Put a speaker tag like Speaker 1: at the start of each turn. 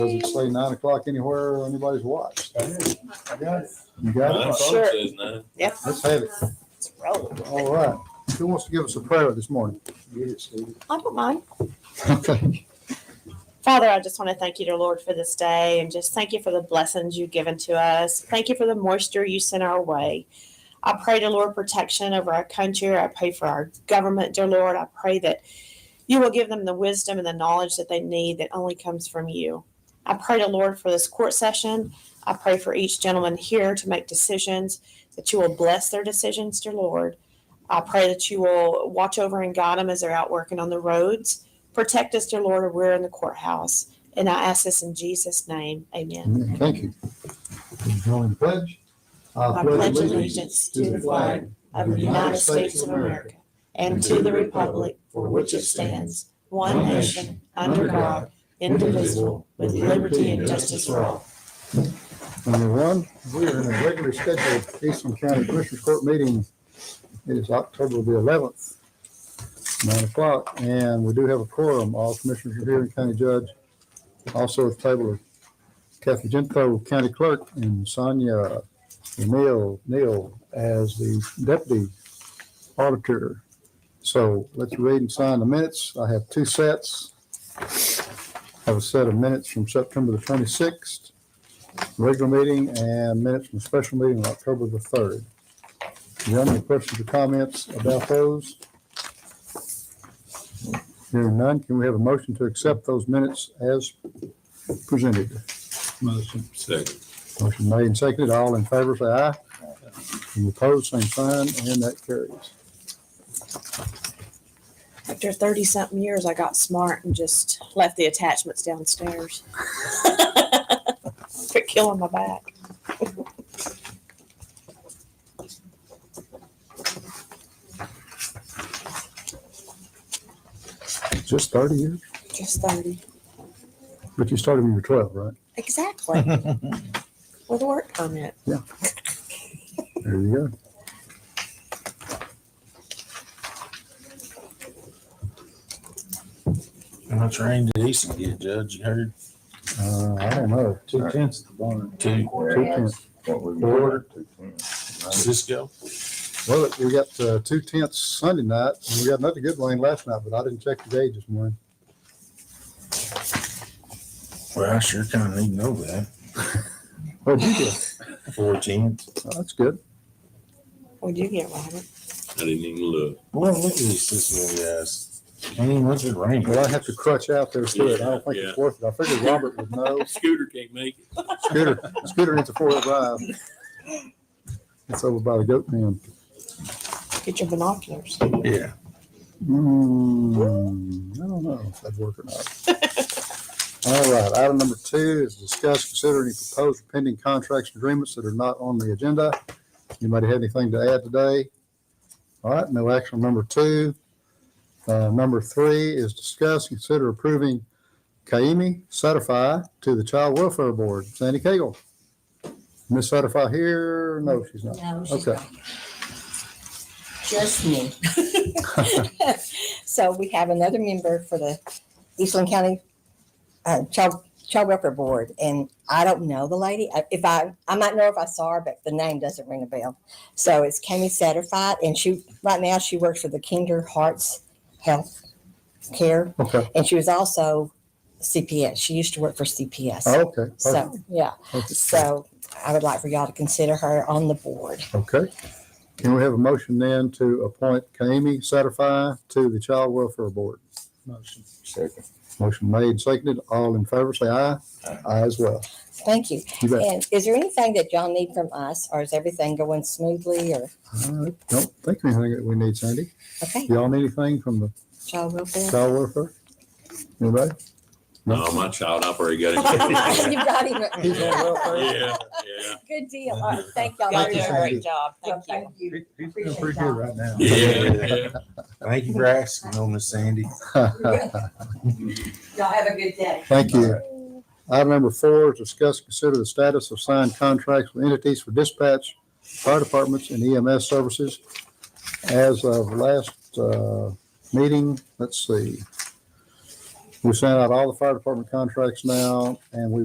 Speaker 1: Doesn't say nine o'clock anywhere on anybody's watch.
Speaker 2: I got it.
Speaker 1: You
Speaker 3: My
Speaker 1: got it?
Speaker 3: phone
Speaker 4: Sure.
Speaker 3: says nine.
Speaker 4: Yep,
Speaker 1: Let's have it.
Speaker 4: let's roll.
Speaker 1: All right. Who wants to give us a prayer this morning?
Speaker 2: Get it, Steve.
Speaker 4: I don't mind.
Speaker 1: Okay.
Speaker 4: Father, I just want to thank you, dear Lord, for this day and just thank you for the blessings you've given to us. Thank you for the moisture you sent our way. I pray, dear Lord, protection over our country. I pray for our government, dear Lord. I pray that you will give them the wisdom and the knowledge that they need that only comes from you. I pray, dear Lord, for this court session. I pray for each gentleman here to make decisions, that you will bless their decisions, dear Lord. I pray that you will watch over and guide them as they're out working on the roads. Protect us, dear Lord, if we're in the courthouse. And I ask this in Jesus' name. Amen.
Speaker 1: Thank you. Join the pledge.
Speaker 4: I pledge allegiance to the flag of the United States of America and to the republic for which it stands, one nation, under God, indivisible, with liberty and justice for all.
Speaker 1: Number one, we are in a regularly scheduled Eastern County Commissioners Court meeting. It is October the eleventh, nine o'clock, and we do have a quorum. All commissioners are here, and county judge. Also at the table are Kathy Gento, county clerk, and Sonia Neal, Neal as the deputy auditor. So let's read and sign the minutes. I have two sets. I Have a set of minutes from September the twenty-sixth regular meeting and minutes from special meeting on October the third. Do you have any questions or comments about those? Hearing none, can we have a motion to accept those minutes as presented?
Speaker 2: Motion.
Speaker 3: Second.
Speaker 1: Motion made and seconded. All in favor, say aye. Any opposed, same sign, and that carries.
Speaker 4: After 30 something years, I got smart and just left the attachments downstairs. They're killing my back.
Speaker 1: Just thirty years,
Speaker 4: Just 30.
Speaker 1: but you started when you were twelve, right?
Speaker 4: Exactly. With a work permit.
Speaker 1: There you go.
Speaker 5: How much rain did Easton get, Judge? You heard
Speaker 1: Uh, I don't know.
Speaker 2: Two tenths of the barn.
Speaker 5: two
Speaker 1: Whereas
Speaker 6: Order.
Speaker 5: Cisco?
Speaker 1: Well, we got uh, two tenths Sunday night, and we got another good rain last night, but I didn't check the gauge this morning.
Speaker 5: Well, I sure kind of need to know that.
Speaker 1: Oh, you did?
Speaker 5: Fourteen.
Speaker 1: Oh, That's good.
Speaker 4: We do get one.
Speaker 3: I didn't even look.
Speaker 5: Well, look at these Cisco guys. Can't even look at rain.
Speaker 1: Well, I have to crutch out there still. I don't think it's worth it. I figured Robert would know.
Speaker 3: Scooter can't make it.
Speaker 1: Scooter, Scooter needs a four-wheel drive. It's over by the goat pen.
Speaker 4: Get your binoculars.
Speaker 5: Yeah.
Speaker 1: Hmm, I don't know if that'd work or not. All right, item number two is discuss, consider any proposed pending contracts and agreements that are not on the agenda. Anybody have anything to add today? All right, no action on number two. Uh, number three is discuss, consider approving Kaimi certify to the Child Welfare Board. Sandy Cagle. Miss Certify here? No, she's not.
Speaker 7: No, she's
Speaker 1: Okay.
Speaker 7: not. Just me. So we have another member for the Eastland County uh, Child, Child Welfare Board, and I don't know the lady. I- If I, I might know if I saw her, but the name doesn't ring a bell. So it's Kami Satterfield, and she, right now, she works for the Kinder Hearts Health Care,
Speaker 1: Okay,
Speaker 7: and she was also CPS. She used to work for CPS.
Speaker 1: Oh, okay. perfect,
Speaker 7: So, yeah,
Speaker 1: perfect.
Speaker 7: so I would like for y'all to consider her on the board.
Speaker 1: Okay. Can we have a motion then to appoint Kami Satterfy to the Child Welfare Board?
Speaker 2: Motion.
Speaker 6: Second.
Speaker 1: Motion made, seconded. All in favor, say aye. Aye as well.
Speaker 7: Thank you.
Speaker 1: You bet.
Speaker 7: And is there anything that y'all need from us, or is everything going smoothly, or,
Speaker 1: I Don't think of anything that we need, Sandy.
Speaker 7: okay,
Speaker 1: Y'all need anything from the
Speaker 7: child welfare?
Speaker 1: Child Welfare? Anybody?
Speaker 3: No, my child, I've already got it.
Speaker 7: You got
Speaker 1: He's
Speaker 7: him.
Speaker 1: on welfare.
Speaker 3: Yeah, yeah.
Speaker 7: Good deal. All right, thank y'all.
Speaker 4: Y'all
Speaker 1: Thank
Speaker 4: do
Speaker 1: you,
Speaker 4: a
Speaker 1: Sandy.
Speaker 4: great job. Thank you.
Speaker 2: He's doing pretty good right now.
Speaker 3: Yeah, yeah.
Speaker 5: Thank you for asking, though, Miss Sandy.
Speaker 7: Y'all have a good day.
Speaker 1: Thank you. Item number four is discuss, consider the status of signed contracts with entities for dispatch, fire departments, and EMS services. As of last uh, meeting, let's see. We sent out all the fire department contracts now, and we